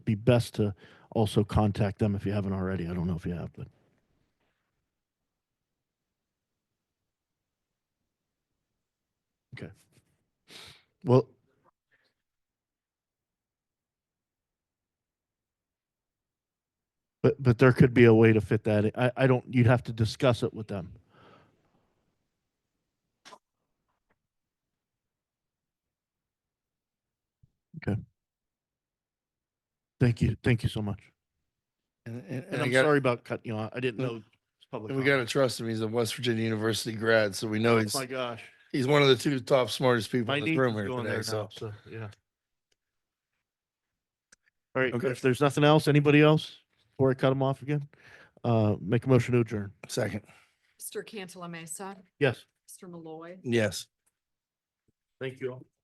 be best to also contact them if you haven't already. I don't know if you have, but okay. Well, but but there could be a way to fit that. in. I I don't. You'd have to discuss it with them. Thank you. Thank you so much. And, and, And I I'm got- sorry about cutting you off. I didn't No. know. it's public and we got comment. to trust him. He's a West Virginia University grad, so we know Oh he's my gosh. he's one of the two top smartest people My in the niece room is here going today. there so now, so, yeah. All right, Okay. if there's nothing else, anybody else, before I cut them off again, uh, make a motion to adjourn. second, Mr. Cantala Mesa, Yes. Mr. Malloy. yes. Thank you all.